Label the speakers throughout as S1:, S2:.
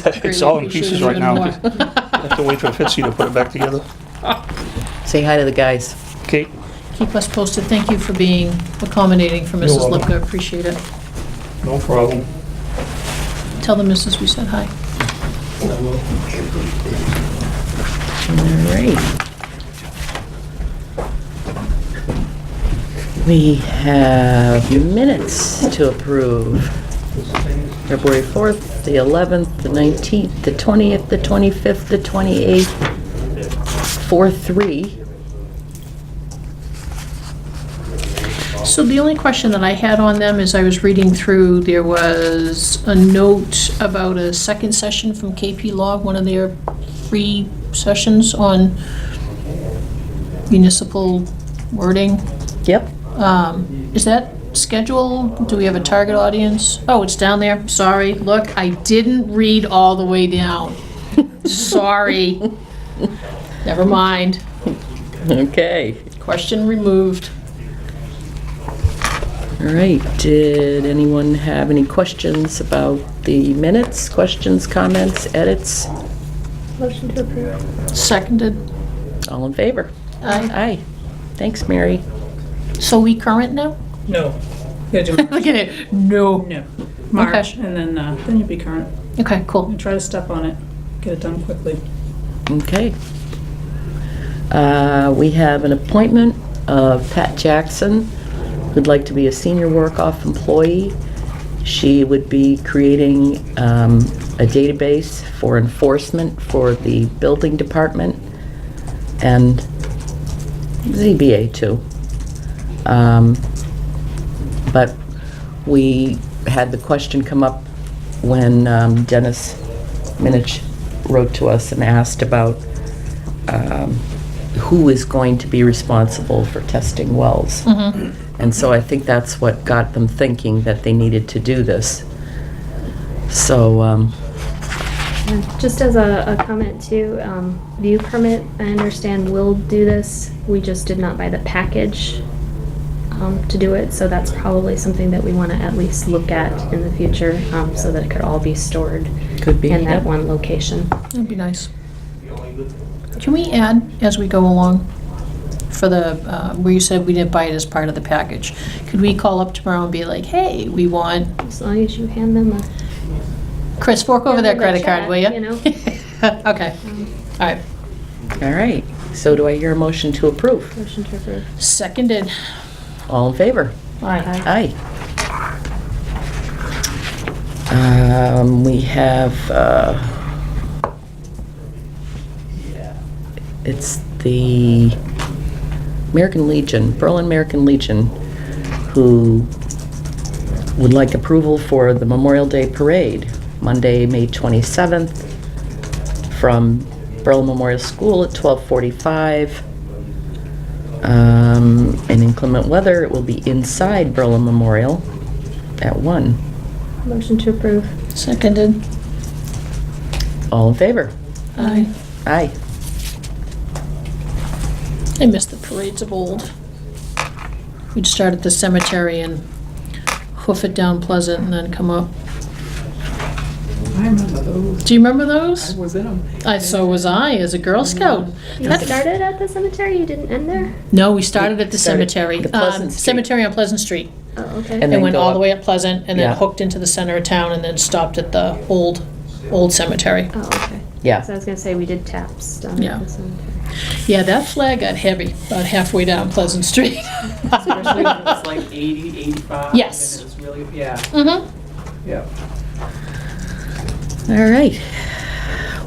S1: It's all in pieces right now. I have to wait for Fitzy to put it back together.
S2: Say hi to the guys.
S1: Kate?
S3: Keep us posted. Thank you for being accommodating for
S1: You're
S3: Mrs.
S1: welcome.
S3: Lipka. Appreciate it.
S1: No problem.
S3: Tell the missus we said hi.
S2: All right. We have minutes to approve. February 4th, the 11th, the 19th, the 20th, the 25th, the 28th, 4/3.
S3: So the only question that I had on them is I was reading through, there was a note about a second session from KP Law, one of their free sessions on municipal wording.
S2: Yep.
S3: Um, Is that scheduled? Do we have a target audience? Oh, it's down there. Sorry. Look, I didn't read all the way down. Sorry. Never mind.
S2: Okay.
S3: Question removed.
S2: All right. Did anyone have any questions about the minutes? Questions, comments, edits?
S3: Seconded.
S2: All in favor?
S3: Aye.
S2: Aye. Thanks, Mary.
S3: So we current now?
S4: No. You gotta do
S3: Look at it. No.
S4: no. March,
S3: Okay.
S4: and then, uh, then you'll be current.
S3: Okay, cool.
S4: And try to step on it, get it done quickly.
S2: Okay. Uh, We have an appointment of Pat Jackson, who'd like to be a senior work-off employee. She would be creating um, a database for enforcement for the building department and ZBA too. Um, But we had the question come up when um, Dennis Minich wrote to us and asked about um, who is going to be responsible for testing wells.
S5: Mm-hmm.
S2: And so I think that's what got them thinking that they needed to do this. So, um,
S5: Yeah, Just as a, a comment too, um, view permit, I understand will do this. We just did not buy the package, um, to do it, so that's probably something that we wanna at least look at in the future, um, so that it could all be stored
S2: could be.
S5: in that
S2: yeah.
S5: one location.
S3: That'd be nice. Can we add, as we go along, for the, uh, where you said we didn't buy it as part of the package? Could we call up tomorrow and be like, hey, we want
S5: As long as you hand them a
S3: Chris, fork over
S5: Yeah,
S3: that
S5: with
S3: credit
S5: that
S3: card, will
S5: check,
S3: you? Mm-hmm. Okay, all right.
S2: All right. So do I hear a motion to approve?
S5: motion to approve.
S3: Seconded.
S2: All in favor?
S3: All right.
S2: Aye. Um, we have, uh, it's the American Legion, Berlin American Legion, who would like approval for the Memorial Day Parade, Monday, May 27th, from Berlin Memorial School at 1245. Um, in inclement weather, it will be inside Berlin Memorial at one.
S5: Motion to approve.
S3: Seconded.
S2: All in favor?
S3: Aye.
S2: Aye.
S3: I miss the parades of old. We'd start at the cemetery and hoof it down Pleasant and then come up.
S4: I remember those.
S3: Do you remember those?
S4: was in them.
S3: I, Mm-hmm. so was I as a Girl Scout.
S5: You
S3: That's-
S5: started at the cemetery, you didn't end there?
S3: No, we started at the
S2: Started
S3: cemetery.
S2: at Pleasant
S3: um,
S2: Street.
S3: Cemetery on Pleasant Street.
S5: Oh, okay.
S2: And
S3: And
S2: then
S3: went
S2: go
S3: all
S2: up.
S3: the way up Pleasant and then
S2: Yeah.
S3: hooked into the center of town and then stopped at the old, old cemetery.
S5: Oh, okay.
S2: Yeah.
S5: So I was gonna say, we did taps down
S3: Yeah.
S5: at the cemetery.
S3: Yeah, that flag got heavy about halfway down Pleasant Street.
S4: Especially when it was like 80, 85.
S3: Yes.
S4: And it was really, yeah,
S3: Mhm.
S4: yeah.
S2: All right.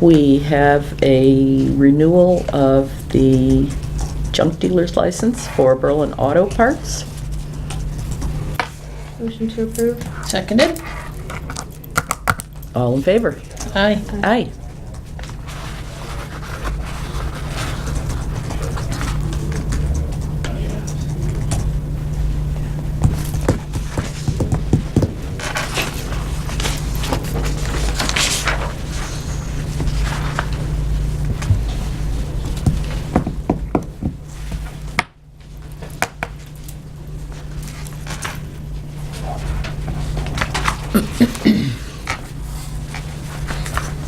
S2: We have a renewal of the junk dealer's license for Berlin Auto Parts.
S5: Motion to approve.
S3: Seconded.
S2: All in favor?
S3: Aye.
S2: Aye.